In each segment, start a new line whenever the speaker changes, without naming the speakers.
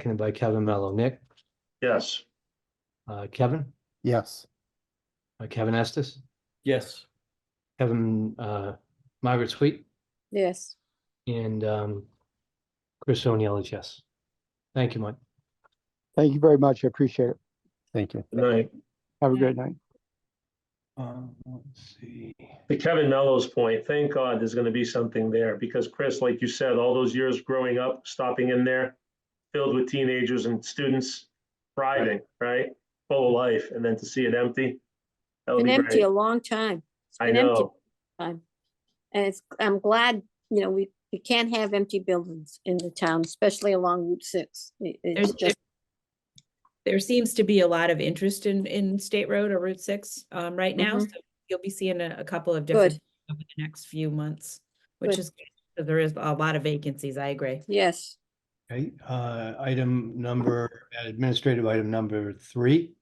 seconded by Kevin Mello. Nick,
Yes.
uh, Kevin,
Yes.
uh, Kevin Estes,
Yes.
Kevin, uh, Margaret Sweet
yes.
and, um, Chris O'Neill is yes. Thank you, Mike.
Thank you very much. I appreciate it. Thank you.
Good night.
Have a great night.
Um, let's see.
To Kevin Mello's point, thank God there's gonna be something there, because Chris, like you said, all those years growing up, stopping in there, filled with teenagers and students, thriving, right? Full of life, and then to see it empty. that would
Been
be
empty
great.
a long time. It's
I
been empty
know,
a long time. And it's, I'm glad, you know, we, we can't have empty buildings in the town, especially along Route six. It- It's
There's-
just,
There seems to be a lot of interest in, in State Road or Route Six, um, right now.
Mhm.
So You'll be seeing a, a couple of different
Good.
over the next few months, which
Good.
is, good, 'cause there is a lot of vacancies, I agree.
yes,
Okay, uh, item number, administrative item number three.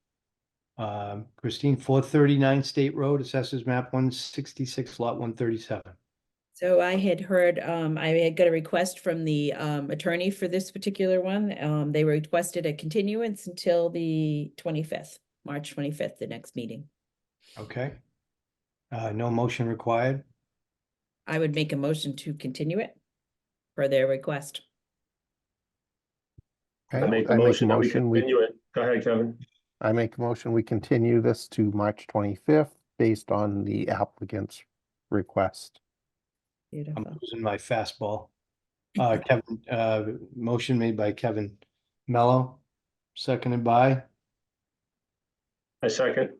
Um, Christine, four thirty-nine State Road, assessors map one sixty-six, lot one thirty-seven.
So I had heard, um, I had got a request from the, um, attorney for this particular one. Um, they requested a continuance until the twenty-fifth, March twenty-fifth, the next meeting.
Okay. Uh, no motion required.
I would make a motion to continue it for their request.
I
Okay,
make a motion that we continue it. Go ahead, Kevin.
I make a motion, we continue this to March twenty-fifth based on the applicant's request.
I'm
Beautiful.
losing my fastball. Uh, Kevin, uh, motion made by Kevin Mello, seconded by,
I second,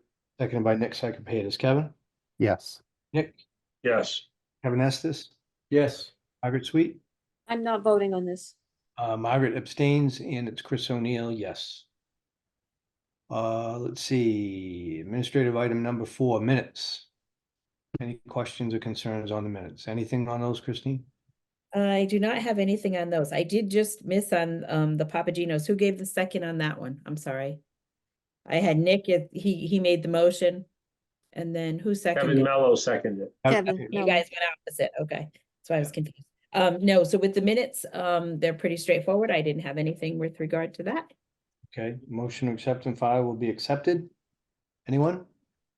seconded by Nick Cyclepatis. Kevin,
Yes.
Nick,
yes.
Kevin Estes,
Yes.
Margaret Sweet,
I'm not voting on this.
uh, Margaret abstains, and it's Chris O'Neill, yes. Uh, let's see, administrative item number four, minutes. Any questions or concerns on the minutes? Anything on those, Christine?
I do not have anything on those. I did just miss on um the Papagenos. Who gave the second on that one? I'm sorry. I had Nick, it- he he made the motion. And then who
Kevin
seconded?
Mello seconded.
Kevin,
You
no.
guys went opposite. Okay, so I was confused. Um, no, so with the minutes, um, they're pretty straightforward. I didn't have anything with regard to that.
Okay, motion to accept and file will be accepted. Anyone?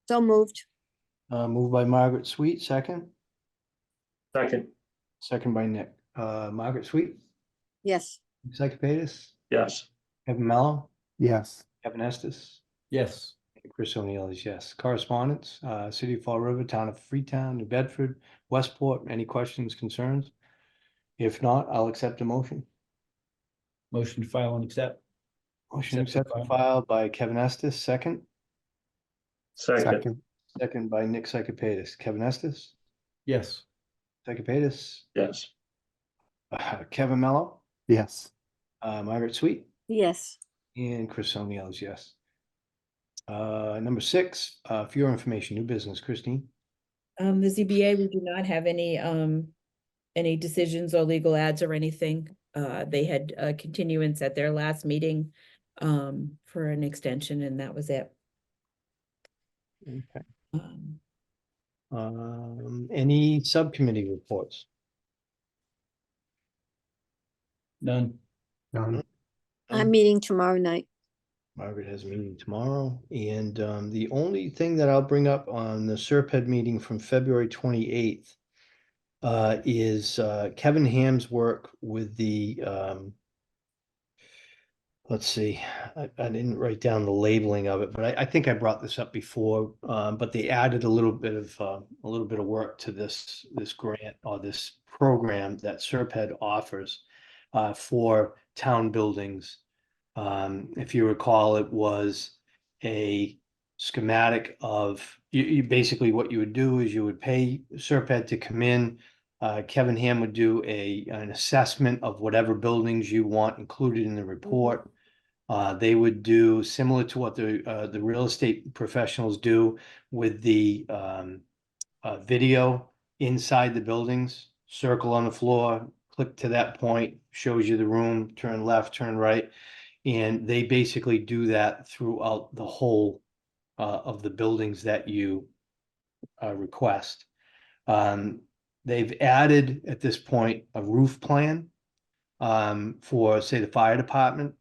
So moved,
Uh, moved by Margaret Sweet, second,
Second,
second by Nick. Uh, Margaret Sweet,
yes.
Nick Cyclepatis,
yes.
Kevin Mello,
Yes.
Kevin Estes,
Yes.
and Chris O'Neill is yes. Correspondence, uh, City of Fall River, Town of Freetown, New Bedford, Westport, any questions, concerns? If not, I'll accept a motion.
Motion to file and accept.
Motion to
Accept
accept
and
and filed by Kevin Estes, second,
Second,
Second.
second by Nick Cyclepatis. Kevin Estes,
Yes.
Cyclepatis,
yes.
uh, Kevin Mello,
Yes.
uh, Margaret Sweet.
Yes,
And Chris O'Neill is yes. Uh, number six, uh, for your information, new business, Christine.
Um, the ZBA, we do not have any, um, any decisions or legal ads or anything. Uh, they had a continuance at their last meeting, um, for an extension and that was it.
Okay.
Um,
Um, any subcommittee reports?
None.
None.
Um,
I'm meeting tomorrow night.
Margaret has a meeting tomorrow, and, um, the only thing that I'll bring up on the Serped meeting from February twenty-eighth uh, is, uh, Kevin Ham's work with the, um, let's see, I, I didn't write down the labeling of it, but I, I think I brought this up before, um, but they added a little bit of, uh, a little bit of work to this, this grant or this program that Serped offers uh, for town buildings. Um, if you recall, it was a schematic of, you, you, basically what you would do is you would pay Serped to come in. Uh, Kevin Ham would do a, an assessment of whatever buildings you want included in the report. Uh, they would do similar to what the, uh, the real estate professionals do with the, um, uh, video inside the buildings, circle on the floor, click to that point, shows you the room, turn left, turn right. And they basically do that throughout the whole uh, of the buildings that you uh, request. Um, they've added at this point a roof plan um, for, say, the fire department.